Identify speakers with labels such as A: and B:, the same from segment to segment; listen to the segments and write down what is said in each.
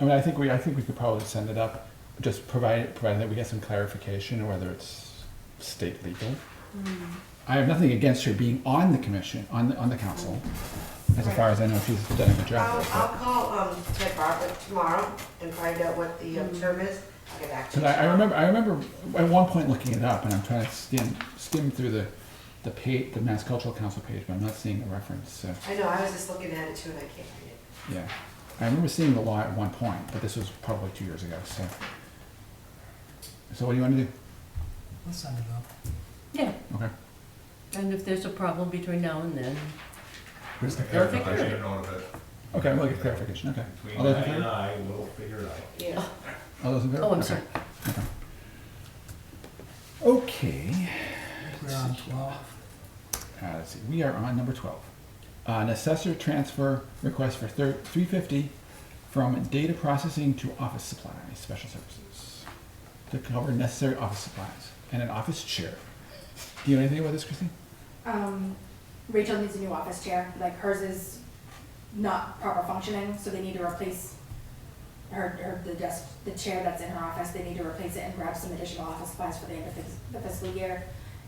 A: I mean, I think we, I think we could probably send it up, just provide, provided that we get some clarification, whether it's state legal.
B: Mm.
A: I have nothing against her being on the commission, on the, on the council, as far as I know, she's done a good
B: I'll,
A: job.
B: I'll call, um, Ted Bartlett tomorrow and find out what the um, term is. I'll get back to
A: Cause
B: you.
A: I, I remember, I remember at one point looking it up, and I'm trying to skim, skim through the, the pa, the Mass Cultural Council page, but I'm not seeing the reference, so,
B: I know, I was just looking at it too and I can't find it.
A: yeah. I remember seeing the law at one point, but this was probably two years ago, so. So what do you wanna do?
C: Let's send it up.
D: Yeah,
A: Okay.
D: and if there's a problem between now and then,
E: Where's the
D: They'll take
E: I
D: care of
E: should
D: it.
E: have known of it.
A: Okay, we'll get clarification, okay.
E: Between
A: All those in
E: Diane and uh,
A: favor?
E: I, we'll figure it out.
B: Yeah.
A: All those in favor?
D: oh, I'm
A: Okay.
D: sorry.
A: Okay,
C: We're on twelve.
A: uh, let's see, we are on number twelve. Uh, An assessor transfer request for thir- three fifty from data processing to office supplies, special services. To cover necessary office supplies and an office chair. Do you know anything about this, Christine?
F: Um, Rachel needs a new office chair, like hers is not proper functioning, so they need to replace her, her, the desk, the chair that's in her office, they need to replace it and grab some additional office supplies for the end of fis- the fiscal year.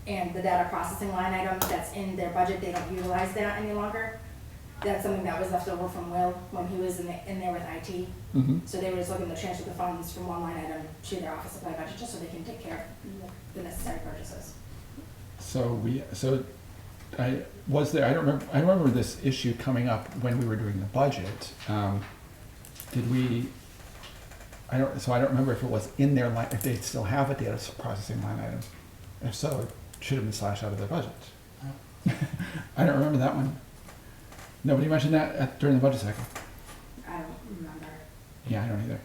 F: And the data processing line item that's in their budget, they don't utilize that any longer. That's something that was left over from Will when he was in the, in there with IT.
A: Mm-hmm.
F: So they were just looking to transfer the funds from one line item to their office supply budget, just so they can take care of the necessary purchases.
A: So we, so I was there, I don't remember, I remember this issue coming up when we were doing the budget. Um, Did we, I don't, so I don't remember if it was in their line, if they still have a data processing line item. If so, it should have been slashed out of their budget. I don't remember that one. Nobody mentioned that at- during the budget cycle.
F: I don't remember.
A: Yeah, I don't either.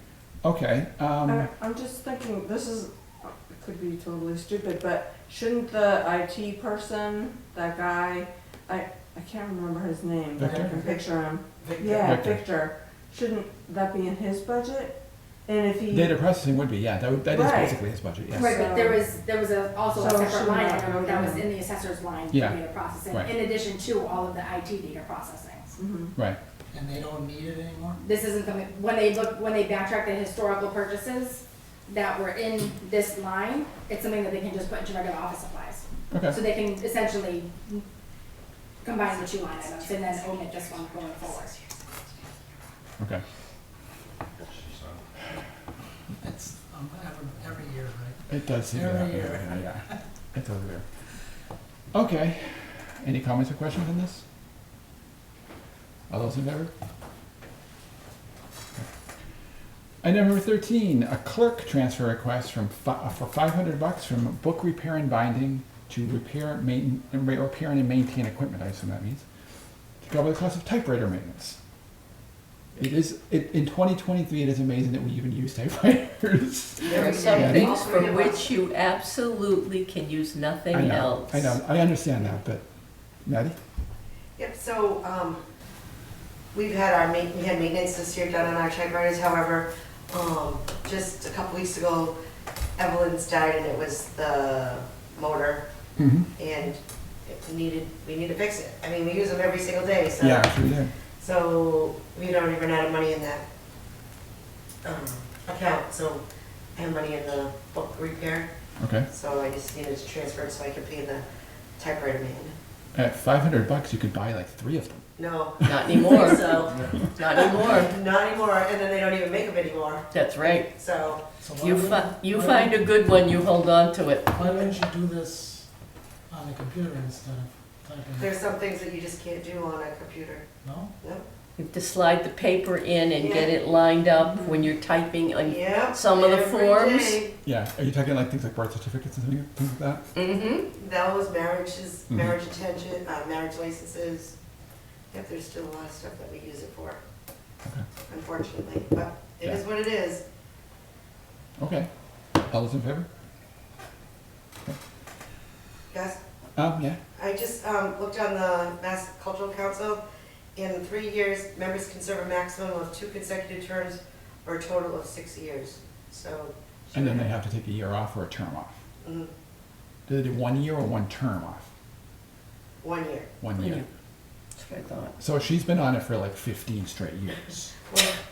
A: Okay,
F: Uh,
G: I-
A: um,
G: I'm just thinking, this is, it could be totally stupid, but shouldn't the IT person, that guy, I, I can't remember his name, but I
A: Victor?
G: can picture him.
B: Victor?
G: Yeah,
A: Victor.
G: Victor, shouldn't that be in his budget? And if he,
A: data processing would be, yeah, that would, that is
G: Right.
A: basically his budget, yes.
F: Right, but there was, there was a- also a
G: So
F: separate
G: should
F: line
G: not
F: item
G: go
F: that was
G: down.
F: in the assessor's line for
A: Yeah,
F: data processing,
A: right.
F: in addition to all of the IT data processing.
G: Mhm.
A: Right,
C: And they don't need it anymore?
F: This isn't the, when they look, when they backtrack the historical purchases that were in this line, it's something that they can just put into regular office supplies.
A: okay.
F: So they can essentially combine the two line items and then omit this one going forward.
A: Okay.
E: So-
C: It's, um, every, every year, right?
A: It does seem to
C: Every
A: happen
C: year.
A: every year, yeah. It does there. Okay, any comments or questions on this? All those in favor? Item number thirteen, a clerk transfer request from fi- uh, for five hundred bucks from book repair and binding to repair, main, repair and maintain equipment, I assume that means, to cover the cost of typewriter maintenance. It is, it, in twenty twenty-three, it is amazing that we even use typewriters.
D: There are some
A: Yeah.
D: things
B: All three
D: for
B: of
D: which you absolutely can use nothing
A: I know,
D: else.
A: I know, I understand that, but, Maddie?
B: Yep, so, um, we've had our ma, we had maintenance this year done on our typewriters, however, um, just a couple weeks ago, Evelyn's died and it was the motor
A: Mm-hmm.
B: and it needed, we need to fix it. I mean, we use them every single day, so.
A: Yeah, sure do.
B: So we don't even have money in that, um, account, so I have money in the book repair,
A: Okay,
B: so I just needed to transfer it so I could pay the typewriter man.
A: at five hundred bucks, you could buy like three of them.
B: No,
D: Not anymore,
B: so,
D: not anymore.
B: not anymore, and then they don't even make them anymore,
D: That's right.
B: so.
C: So why
D: You
C: wouldn't-
D: fi- you
C: why
D: find a good one, you hold on to it.
C: Why wouldn't you do this on the computer instead of typing? it?
B: There's some things that you just can't do on a computer.
C: No?
D: You have to slide the paper in and get it lined up when you're typing on.
B: Yep.
D: Some of the
B: every
D: forms.
B: day.
A: Yeah, are you talking like things like birth certificates and things- things like that?
D: Mm-hmm.
B: Those marriages,
A: Mhm.
B: marriage attention, uh, marriage licenses. Yep, there's still a lot of stuff that we use it for.
A: Okay.
B: Unfortunately, but it is what it is.
A: Okay, all those in favor?
B: Guys,
A: Um, yeah,
B: I just, um, looked on the Mass Cultural Council. In three years, members can serve a maximum of two consecutive terms or a total of six years, so.
A: and then they have to take a year off or a term off.
B: Mm,
A: Do they do one year or one term off?
B: One year.
A: One
D: One
A: year.
D: year. That's what I thought.
A: So she's been on it for like fifteen straight years.
B: Well,